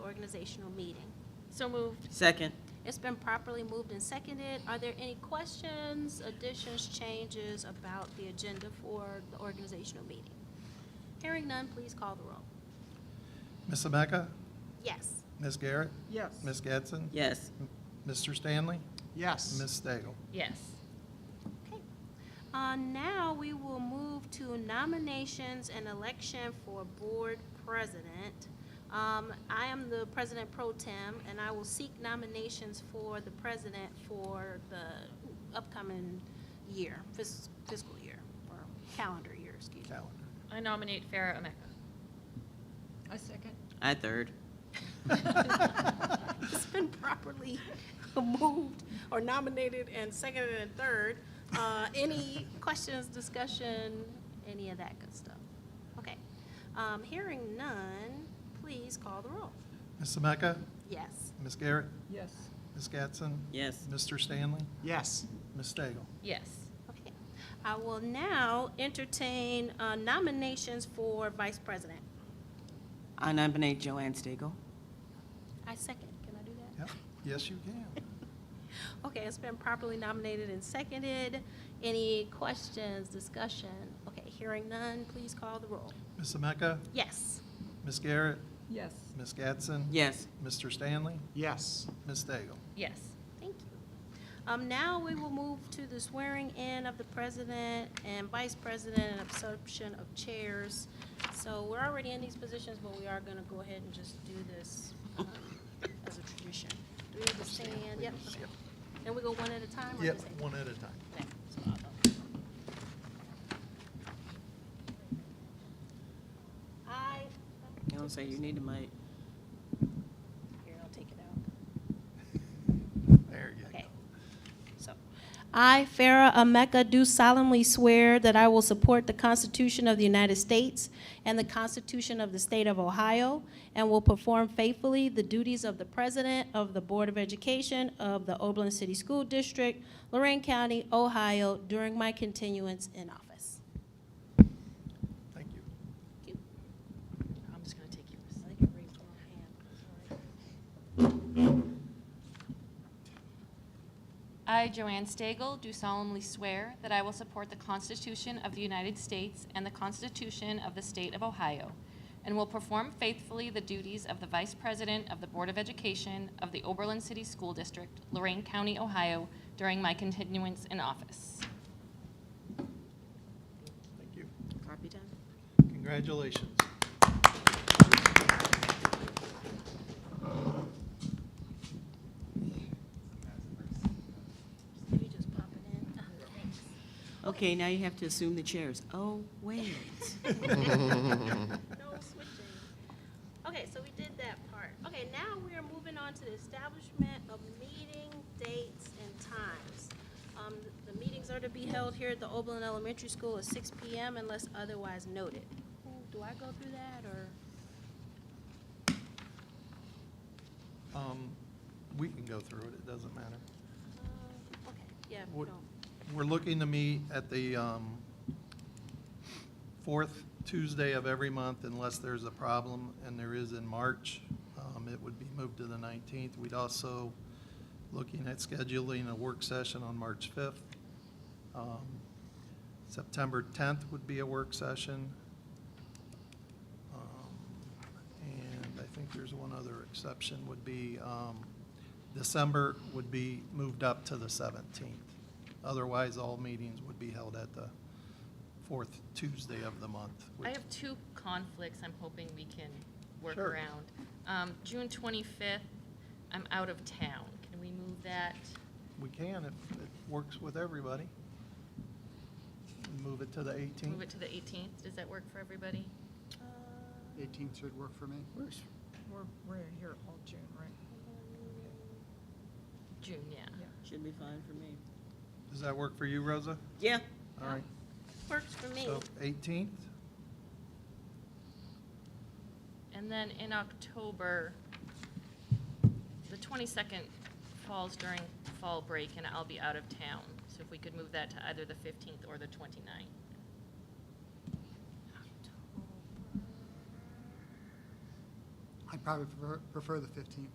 organizational meeting. So moved. Second. It's been properly moved and seconded. Are there any questions, additions, changes about the agenda for the organizational meeting? Hearing none, please call the roll. Ms. Ameca? Yes. Ms. Garrett? Yes. Ms. Getson? Yes. Mr. Stanley? Yes. Ms. Stagel? Yes. Okay. Uh, Now, we will move to nominations and election for board president. Um, I am the president pro tem, and I will seek nominations for the president for the upcoming year, fis- fiscal year, or calendar year, excuse me. Calendar. I nominate Farah Omeka. I second. I third. It's been properly moved or nominated and seconded and third. Uh, Any questions, discussion, any of that good stuff? Okay. Um, Hearing none, please call the roll. Ms. Ameca? Yes. Ms. Garrett? Yes. Ms. Getson? Yes. Mr. Stanley? Yes. Ms. Stagel? Yes. Okay. I will now entertain uh, nominations for vice president. I nominate Joanne Stagel. I second. Can I do that? Yep. Yes, you can. Okay, it's been properly nominated and seconded. Any questions, discussion? Okay, hearing none, please call the roll. Ms. Ameca? Yes. Ms. Garrett? Yes. Ms. Gatson? Yes. Mr. Stanley? Yes. Ms. Stagel? Yes. Thank you. Um, now we will move to the swearing in of the president and vice president and absorption of chairs. So we're already in these positions, but we are gonna go ahead and just do this, um, as a tradition. Do we understand? Yep. okay. And we go one at a time or Yep, just? one at a time. Okay, so I'll go. I. You don't say you need a mic. Here, I'll take it out. There you go. Okay. So, I, Farah Ameka, do solemnly swear that I will support the Constitution of the United States and the Constitution of the State of Ohio, and will perform faithfully the duties of the President of the Board of Education of the Oberlin City School District, Lorraine County, Ohio, during my continuance in office. Thank you. I'm just going to take yours. I, Joanne Stagel, do solemnly swear that I will support the Constitution of the United States and the Constitution of the State of Ohio, and will perform faithfully the duties of the Vice President of the Board of Education of the Oberlin City School District, Lorraine County, Ohio, during my continuance in office. Thank you. Copy done. Congratulations. Maybe just pop it in. Oh, thanks. Okay, now you have to assume the chairs. Oh, wait. No switching. Okay, so we did that part. Okay, now we are moving on to the establishment of meeting dates and times. Um, the meetings are to be held here at the Oberlin Elementary School at six P M unless otherwise noted. Ooh, Do I go through that, or? Um, We can go through it, it doesn't matter. uh, Okay, yeah, What- no. We're looking to meet at the um, fourth Tuesday of every month unless there's a problem, and there is in March. Um, It would be moved to the 19th. We'd also, looking at scheduling a work session on March 5th. Um, September 10th would be a work session. Um, And I think there's one other exception would be, um, December would be moved up to the 17th. Otherwise, all meetings would be held at the fourth Tuesday of the month. I which- have two conflicts I'm hoping we can work Sure. around. Um, June 25th, I'm out of town. Can we move that? We can if it works with everybody. Move it to the Move 18th. it to the 18th? Does that work for everybody? Uh, 18th should work for me. We're, we're here all June, right? June, yeah. Should be fine for me. Does that work for you, Rosa? Yeah. All right, Works for me. so 18th, And then in October, the 22nd falls during fall break, and I'll be out of town. So if we could move that to either the 15th or the 29th. I I'd probably prefer- prefer the 15th.